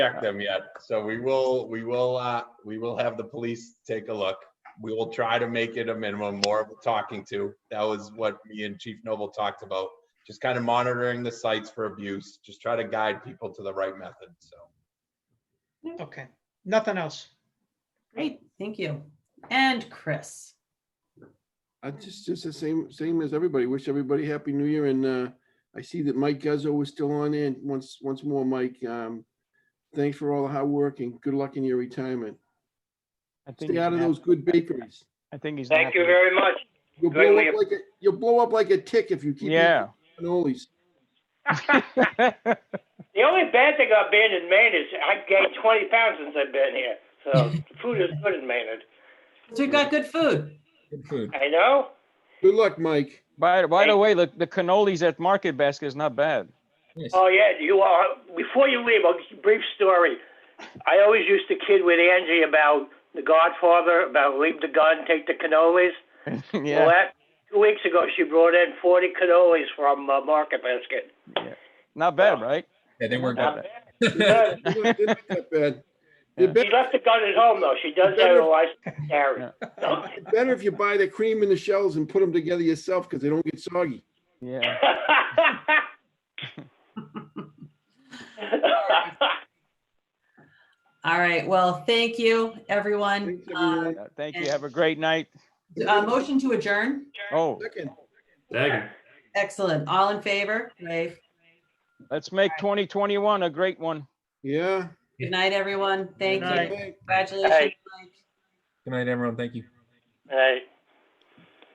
checked them yet, so we will, we will, uh, we will have the police take a look. We will try to make it a minimum, more of a talking to. That was what me and Chief Noble talked about. Just kind of monitoring the sites for abuse, just try to guide people to the right method, so. Okay, nothing else. Great, thank you. And Chris, I just, just the same, same as everybody. Wish everybody happy new year and, uh, I see that Mike Guzzo was still on there. And Once, once more, Mike, um, thanks for all the hard work and good luck in your retirement. I think Stay he's out of nat- those good bakeries. I think he's. Thank you napping. very much. You'll Good blow leave. up like, a- you'll blow up like a tick if you keep. eating Yeah. Cannolis. The only bad thing about being in Maine is I gained 20 pounds since I've been here. So food is good in Maine. so we've got good food. Good food. I know. Good luck, Mike. By, by the Thank- way, the, the cannolis at Market Basket is not bad. Yes. Oh, yeah. You are. Before you leave, a brief story. I always used to kid with Angie about The Godfather, about leave the gun, take the cannolis. Well, Yeah, that, two weeks ago, she brought in 40 cannolis from uh, Market Basket. not bad, right? Yeah, they weren't Not that bad. bad. They're not- they're not that bad. Yeah. They're She better, left the gun at home, though. She does have a license to carry. better if you buy the cream and the shells and put them together yourself because they don't get soggy. Yeah. All right, well, thank you, everyone. Thanks, everyone. Uh, Thank you. Have a great night. Uh, motion to adjourn. Oh, Second. Second. Excellent. All in favor? Dave. let's make 2021 a great one. Yeah. Good night, everyone. Thank Good night. you. Thank- Congratulations. Hey. Mike. Good night, everyone. Thank you. Right.